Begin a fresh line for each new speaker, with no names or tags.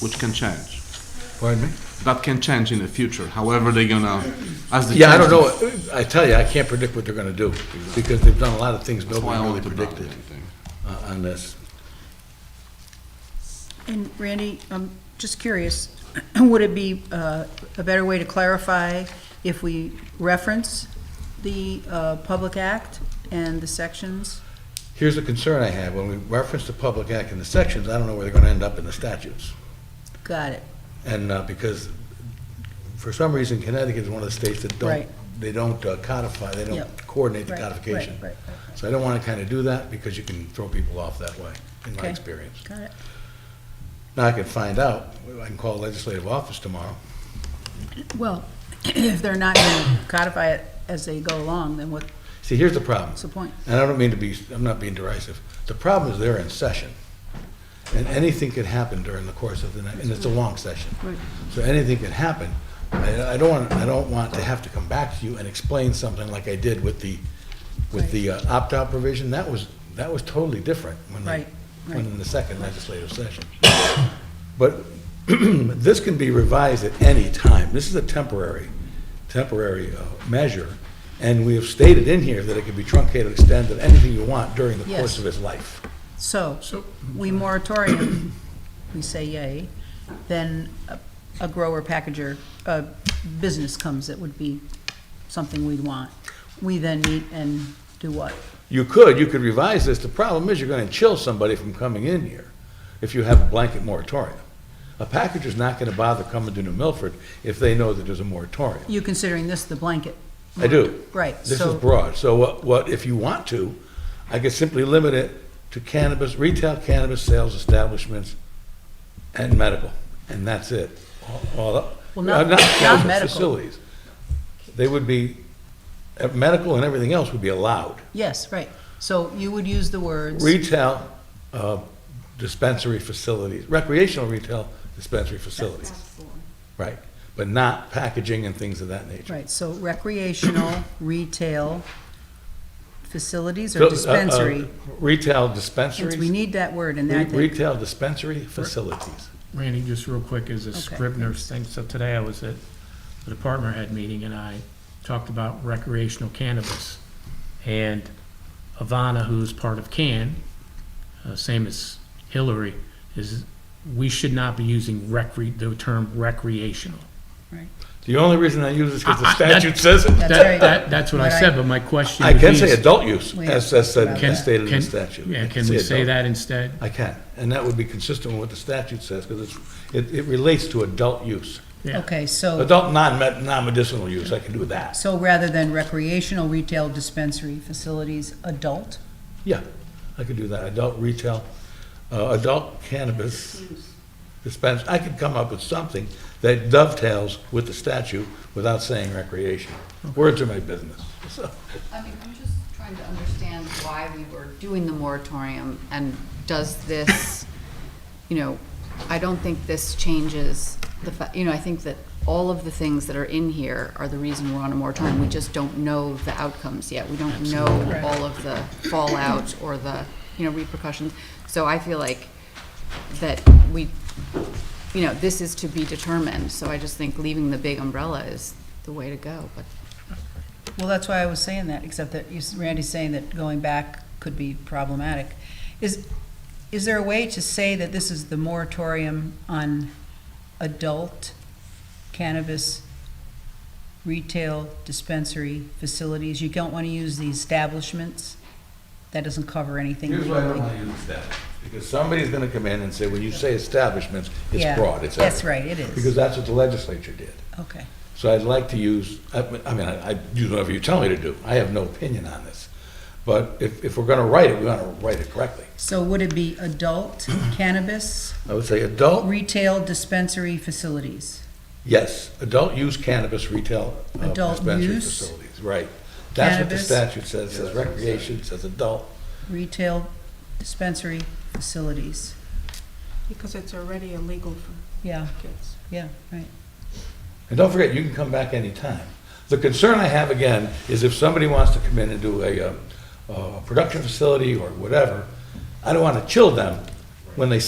which can change.
Pardon me?
That can change in the future, however they're gonna, as the.
Yeah, I don't know, I tell you, I can't predict what they're gonna do, because they've done a lot of things
That's why I
nobody really
want to bother
predicted
anything.
uh, on this.
And Randy, I'm just curious, would it be uh, a better way to clarify if we reference the uh, Public Act and the sections?
Here's a concern I have, when we reference the Public Act in the sections, I don't know where they're gonna end up in the statutes.
Got it.
And uh, because, for some reason, Connecticut is one of the states that don't,
Right.
they don't uh, codify, they don't
Yep.
coordinate the
Right, right,
codification.
right, right, right.
So I don't want to kind of do that, because you can throw people off that way, in my
Okay.
experience.
Got it.
Now, I can find out, I can call legislative office tomorrow.
Well, if they're not going to codify it as they go along, then what's
See, here's the problem.
the point?
and I don't mean to be, I'm not being derisive, the problem is they're in session, and anything could happen during the course of the night, and it's a long session.
Right.
So anything could happen. I, I don't want, I don't want to have to come back to you and explain something like I did with the, with the uh, opt-out provision. That was, that was totally different when they,
Right, right.
when in the second legislative session. But this can be revised at any time. This is a temporary, temporary uh, measure, and we have stated in here that it can be truncated, extended, anything you want during the course
Yes.
of its life.
So,
So-
we moratorium, we say yay, then a- a grower packager, a business comes that would be something we'd want. We then meet and do what?
You could, you could revise this. The problem is you're going to chill somebody from coming in here if you have a blanket moratorium. A packager's not going to bother coming to New Milford if they know that there's a moratorium.
You considering this the blanket?
I do.
Right,
This is
so-
broad. So what, what, if you want to, I could simply limit it to cannabis, retail cannabis sales establishments and medical, and that's it. All, all-
Well, not- not
cannabis
medical.
Facilities. They would be, uh, medical and everything else would be allowed.
Yes, right. So you would use the words,
Retail, uh, dispensary facilities, recreational retail dispensary facilities. Right, but not packaging and things of that nature.
right, so recreational, retail, facilities
So, uh,
or
uh,
dispensary.
Retail
Since
dispensaries.
we need that word in there, I
Re-
think.
Retail dispensary facilities.
Randy, just real quick, as a
Okay,
Scribner's thing, so today I was at the department head meeting and I talked about recreational cannabis. And Ivana, who's part of CAN, uh, same as Hillary, is we should not be using recre, the term recreational.
Right.
The only reason I use this because the
I- I- Ah, that-
statute says it.
That's
That-
right.
that- That's what I said, but my question
I
would be.
can say
is-
adult use, as, as said-
Can-
as stated in
can-
the statute. I
Yeah, can we say
adult.
that instead?
I can, and that would be consistent with what the statute says, because it's, it, it relates to adult use.
Yeah.
Okay, so,
Adult non, non-medicinal use, I can do that.
so rather than recreational, retail, dispensary, facilities, adult?
Yeah, I could do that, adult retail, uh, adult cannabis dispense, I could come up with something that dovetails with the statute without saying recreation. Words are my business, so.
I mean, I'm just trying to understand why we were doing the moratorium, and does this, you know, I don't think this changes the, fa- you know, I think that all of the things that are in here are the reason we're on a moratorium. We just don't know the outcomes yet. We don't know all of the fallout or the, you know, repercussions. So I feel like that we, you know, this is to be determined, so I just think leaving the big umbrella is the way to go, but
Well, that's why I was saying that, except that you- Randy's saying that going back could be problematic. Is, is there a way to say that this is the moratorium on adult cannabis retail dispensary facilities? You don't want to use the establishments? That doesn't cover anything
Here's why I don't
legally.
want to use that, because somebody's gonna come in and say, when you say establishments,
Yeah,
it's broad, it's
That's
everything.
right, it
Because
is.
that's what the legislature did.
Okay,
So I'd like to use, I I mean, I, I do whatever you tell me to do, I have no opinion on this. But if, if we're gonna write it, we wanna write it correctly.
so would it be adult cannabis
I would say adult
retail dispensary facilities?
Yes, adult use cannabis retail uh,
Adult
dispensary
use.
facilities, right. That's what the
Cannabis.
statute says, says recreation, says adult.
retail dispensary facilities.
Because it's already illegal for
Yeah,
kids.
yeah, right.
And don't forget, you can come back anytime. The concern I have again is if somebody wants to come in and do um, a, uh, a production facility or whatever, I don't want to chill them when they